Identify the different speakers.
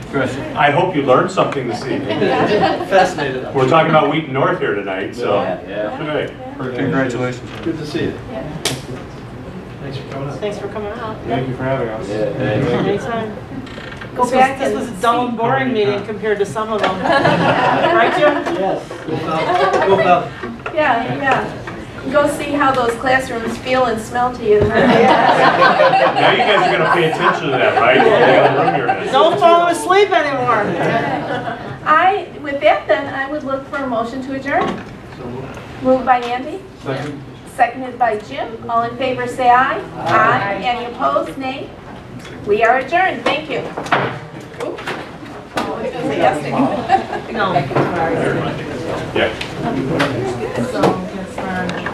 Speaker 1: Right.
Speaker 2: I hope you learned something this evening.
Speaker 3: Fascinated.
Speaker 2: We're talking about Wheaton North here tonight, so.
Speaker 3: Yeah.
Speaker 2: Right.
Speaker 1: Congratulations.
Speaker 3: Good to see you.
Speaker 4: Thanks for coming up.
Speaker 5: Thanks for coming out.
Speaker 4: Thank you for having us.
Speaker 3: Yeah, thank you.
Speaker 5: Anytime. Go
Speaker 6: back
Speaker 5: This was a dull and boring meeting compared to some of them.
Speaker 6: Yeah.
Speaker 5: Right, Jim?
Speaker 3: Yes. Go Falcons, go Falcons.
Speaker 6: Yeah, yeah. Go see how those classrooms feel and smell to you.
Speaker 2: Now you guys are gonna pay attention to that, right? What kind of room you're in.
Speaker 5: Don't fall asleep anymore.
Speaker 6: I, with that then, I would look for a motion to adjourn. Moved by Andy,
Speaker 4: Second.
Speaker 6: seconded by Jim. All in favor, say aye. Aye. Any opposed, nay? We are adjourned. Thank you. Oop. Oh, Yes, thank you.
Speaker 5: No.
Speaker 2: Yeah.
Speaker 7: So